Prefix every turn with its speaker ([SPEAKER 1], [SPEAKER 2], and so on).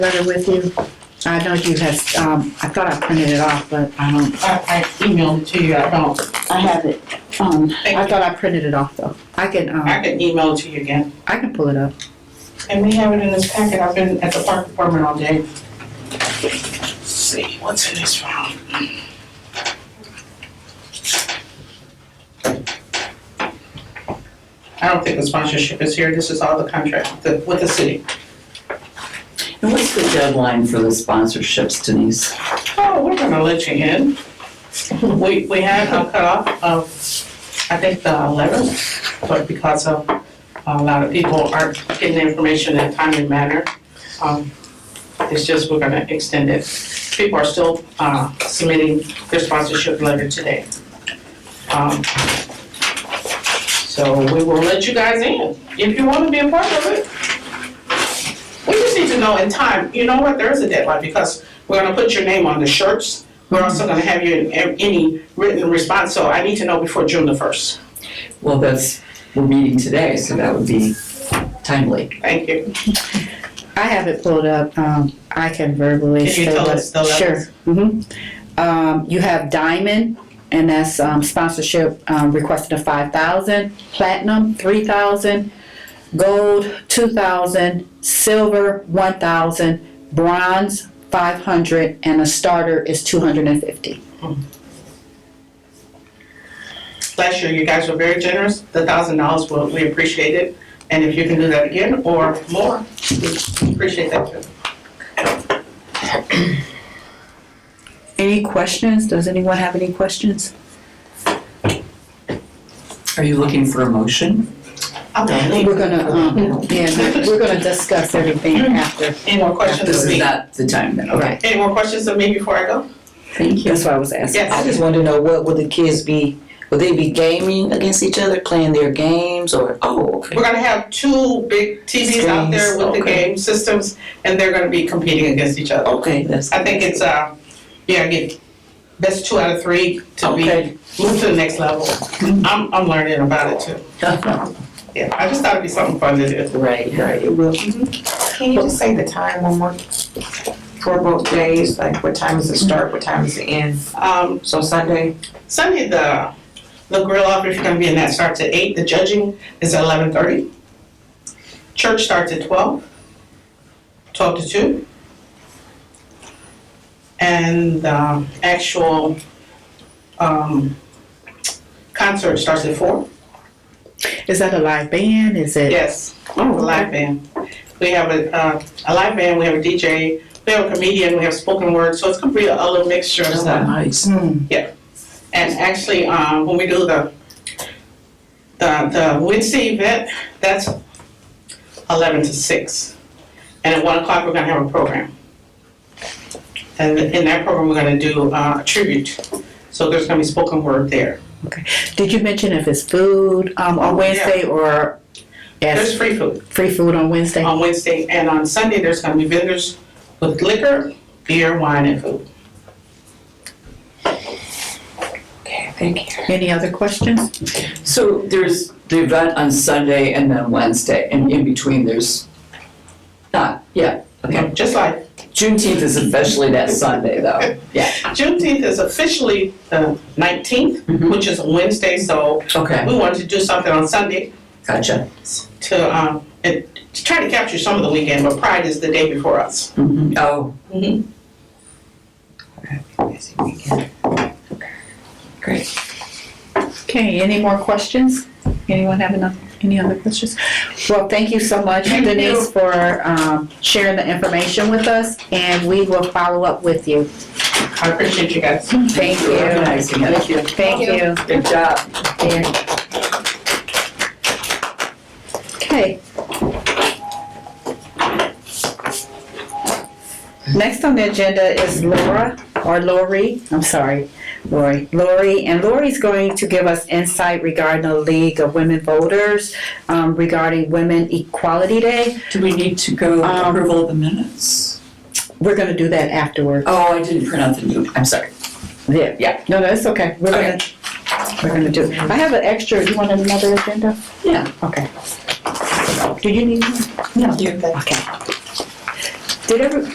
[SPEAKER 1] letter with you? I know you have, um, I thought I printed it off, but I don't,
[SPEAKER 2] I, I emailed it to you, I don't,
[SPEAKER 1] I have it. Um, I
[SPEAKER 2] Thank
[SPEAKER 1] thought I printed it off though. I can,
[SPEAKER 2] I
[SPEAKER 1] um,
[SPEAKER 2] can email it to you again.
[SPEAKER 1] I can pull it up.
[SPEAKER 2] And we have it in this packet, I've been at the park department all day. Let's see, what's in this file? I don't think the sponsorship is here, this is all the contract, the, with the city.
[SPEAKER 3] And what's the deadline for the sponsorships, Denise?
[SPEAKER 2] Oh, we're gonna let you in. We, we had a cutoff of, I think, the eleventh, but because of a lot of people aren't getting the information in a timely manner, um, it's just, we're gonna extend it. People are still, uh, submitting their sponsorship letter today. Um, So we will let you guys in, if you wanna be a part of it. We just need to know in time, you know what, there is a deadline, because we're gonna put your name on the shirts. We're also gonna have you in ev- any written response, so I need to know before June the first.
[SPEAKER 3] Well, that's, we're meeting today, so that would be timely.
[SPEAKER 2] Thank you.
[SPEAKER 1] I have it pulled up. Um, I can verbally.
[SPEAKER 2] Can you
[SPEAKER 1] show
[SPEAKER 2] tell
[SPEAKER 1] what-
[SPEAKER 2] us the levels?
[SPEAKER 1] Sure. hmm Um, you have diamond and that's, um, sponsorship, um, requested of five thousand, platinum, three thousand, gold, two thousand, silver, one thousand, bronze, five hundred, and a starter is two hundred and fifty.
[SPEAKER 2] Last year, you guys were very generous. The thousand dollars, well, we appreciate it. And if you can do that again or more, we appreciate that too.
[SPEAKER 1] Any questions? Does anyone have any questions?
[SPEAKER 3] Are you looking for a motion?
[SPEAKER 2] I'm done.
[SPEAKER 1] We're gonna, um, yeah, we're- we're gonna discuss everything after.
[SPEAKER 2] Any more questions
[SPEAKER 3] This
[SPEAKER 2] of
[SPEAKER 3] is
[SPEAKER 2] me?
[SPEAKER 3] not the time then, okay.
[SPEAKER 1] Mm-hmm. Right.
[SPEAKER 2] Any more questions of me before I go?
[SPEAKER 3] Thank
[SPEAKER 1] That's what I was asking.
[SPEAKER 4] I
[SPEAKER 2] Yes.
[SPEAKER 4] just want to know what would the kids be? Would they be gaming against each other, playing their games, or oh, okay.
[SPEAKER 2] We're gonna have two big TVs out there with the
[SPEAKER 4] Screens, okay.
[SPEAKER 2] game systems, and they're gonna be competing against each other.
[SPEAKER 4] okay, that's
[SPEAKER 2] I think it's, uh, yeah, get best two out of three to be,
[SPEAKER 4] Okay.
[SPEAKER 2] move to the next level. I'm, I'm learning about it too. Yeah, I just thought it'd be something fun to do.
[SPEAKER 4] right, right. It will.
[SPEAKER 5] Can you just say the time one more? For both days, like what time is it start, what time is it end?
[SPEAKER 2] Um,
[SPEAKER 5] So Sunday,
[SPEAKER 2] Sunday, the, the grill off, if you're gonna be in that, starts at eight, the judging is at eleven thirty. Church starts at twelve, twelve to two. And, um, actual, um, concert starts at four.
[SPEAKER 1] Is that a live band? Is it?
[SPEAKER 2] Yes, Oh, a live band. We have a, uh, a live band, we have a DJ, we have a comedian, we have spoken word, so it's gonna be a a little mixture
[SPEAKER 3] Oh,
[SPEAKER 2] of stuff.
[SPEAKER 4] nice.
[SPEAKER 1] hmm.
[SPEAKER 2] And actually, um, when we do the, the, the Wednesday event, that's eleven to six. And at one o'clock, we're gonna have a program. And in that program, we're gonna do, uh, a tribute, so there's gonna be spoken word there.
[SPEAKER 1] Did you mention if it's food um, on Wednesday or
[SPEAKER 2] There's
[SPEAKER 1] as
[SPEAKER 2] free food.
[SPEAKER 1] free food on Wednesday?
[SPEAKER 2] on Wednesday, and on Sunday, there's gonna be vendors with liquor, beer, wine, and food.
[SPEAKER 1] Any other questions?
[SPEAKER 3] So there's the event on Sunday and then Wednesday, and in between there's not, yeah, okay.
[SPEAKER 2] Just like
[SPEAKER 3] Juneteenth is officially that Sunday though, yeah,
[SPEAKER 2] Juneteenth is officially the nineteenth,
[SPEAKER 3] Mhm.
[SPEAKER 2] which is a Wednesday, so
[SPEAKER 3] okay,
[SPEAKER 2] we wanted to do something on Sunday
[SPEAKER 3] gotcha.
[SPEAKER 2] to, um, and to try to capture some of the weekend, but Pride is the day before us.
[SPEAKER 3] Mhm. Oh,
[SPEAKER 1] Okay, any more questions? Anyone have enough, any other questions? Well, thank you so much,
[SPEAKER 2] Thank you.
[SPEAKER 1] Denise, for um, sharing the information with us, and we will follow up with you.
[SPEAKER 2] I appreciate you guys.
[SPEAKER 1] Thank
[SPEAKER 3] for
[SPEAKER 1] you.
[SPEAKER 3] organizing it.
[SPEAKER 1] Thank you.
[SPEAKER 3] Good job.
[SPEAKER 1] Okay. Next on the agenda is Laura, or Lori, I'm sorry, Lori, Lori, and Lori's going to give us insight regarding the League of Women Voters um, regarding Women Equality Day.
[SPEAKER 3] Do we need to go
[SPEAKER 1] Um,
[SPEAKER 3] approval of the minutes?
[SPEAKER 1] We're gonna do that afterward.
[SPEAKER 3] Oh, I didn't print out the new, I'm sorry.
[SPEAKER 1] Oh, Yeah.
[SPEAKER 3] Yeah.
[SPEAKER 1] No, no, it's okay, we're gonna, we're gonna do, it. I have an extra, you want another agenda?
[SPEAKER 3] Yeah.
[SPEAKER 1] Okay. Do you need one? No. Okay. Did every,